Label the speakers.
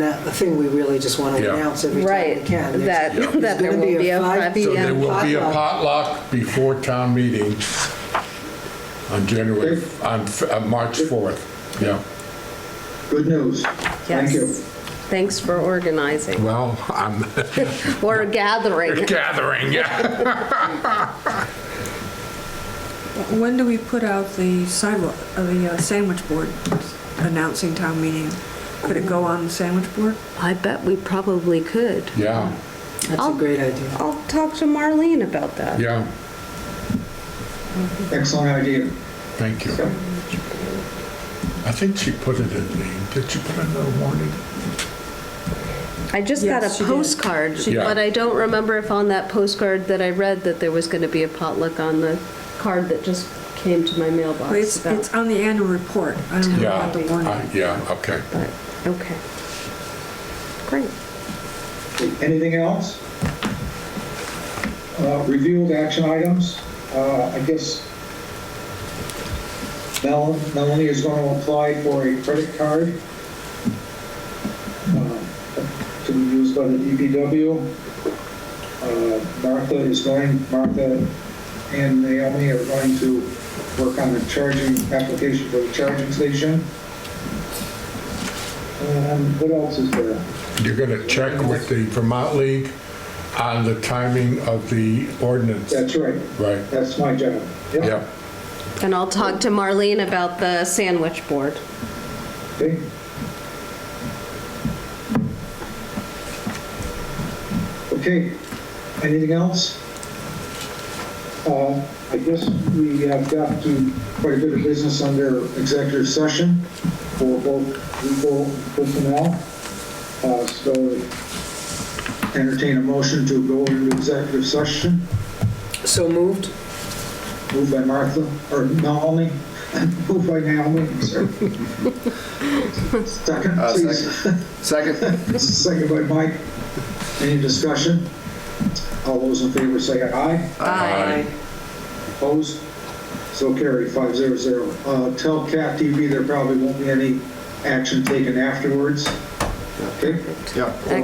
Speaker 1: a a thing we really just want to
Speaker 2: Yeah.
Speaker 1: announce every time we
Speaker 3: Right,
Speaker 1: can. There's-
Speaker 3: that,
Speaker 2: Yeah.
Speaker 3: that there
Speaker 1: gonna
Speaker 3: will be a
Speaker 1: five
Speaker 3: 5
Speaker 1: p.m.
Speaker 2: So there
Speaker 3: PM.
Speaker 2: will be a potluck before town meeting on January, on, F- on March 4th. Yeah.
Speaker 4: Good news. Thank you.
Speaker 3: Yes. Thanks for organizing
Speaker 2: Well, I'm
Speaker 3: or gathering.
Speaker 2: gathering, yeah.
Speaker 5: When do we put out the sidewalk, uh, the uh, sandwich board announcing town meeting? Could it go on the sandwich board?
Speaker 3: I bet we probably could.
Speaker 2: Yeah,
Speaker 1: That's a great idea.
Speaker 3: I'll talk to Marlene about that.
Speaker 2: yeah.
Speaker 4: Excellent idea.
Speaker 2: Thank you. I think she put it in the, did she put it in the warning?
Speaker 3: I just got a
Speaker 5: Yes, she did.
Speaker 3: postcard,
Speaker 2: She did.
Speaker 3: but I don't remember if on that postcard that I read that there was going to be a potluck on the card that just came to my
Speaker 5: Well,
Speaker 3: mailbox
Speaker 5: It's,
Speaker 3: Oh, about.
Speaker 5: it's on the annual report. I don't know
Speaker 2: Yeah.
Speaker 5: about the
Speaker 2: Uh,
Speaker 5: warning.
Speaker 2: Yeah, okay.
Speaker 3: but- Okay. Great.
Speaker 4: Anything else? Uh, Review of action items. Uh, I guess Mel- Melanie is going to apply for a credit card uh, to be used by the DPW. Uh, Martha is going, Martha and Naomi are going to work on the charging, application for the charging station. And what else is there?
Speaker 2: You're going to check with the Vermont League on the timing of the ordinance,
Speaker 4: That's right.
Speaker 2: right?
Speaker 4: That's my job. Yep.
Speaker 2: Yeah,
Speaker 3: And I'll talk to Marlene about the sandwich board.
Speaker 4: Okay. Okay, anything else? Uh, I guess we have got to quite a bit of business under executive session for both legal personnel. Uh, So entertain a motion to go into executive session,
Speaker 1: So moved?
Speaker 4: moved by Martha, or Naomi, moved by Naomi, sorry. Second,
Speaker 6: Uh,
Speaker 4: please.
Speaker 6: second. Second.
Speaker 4: Second by Mike. Any discussion? All those in favor say aye.
Speaker 2: Aye.
Speaker 4: Opposed? So carried, five zero zero. Uh, Tell Cat TV there probably won't be any action taken afterwards. Okay?
Speaker 6: Yep.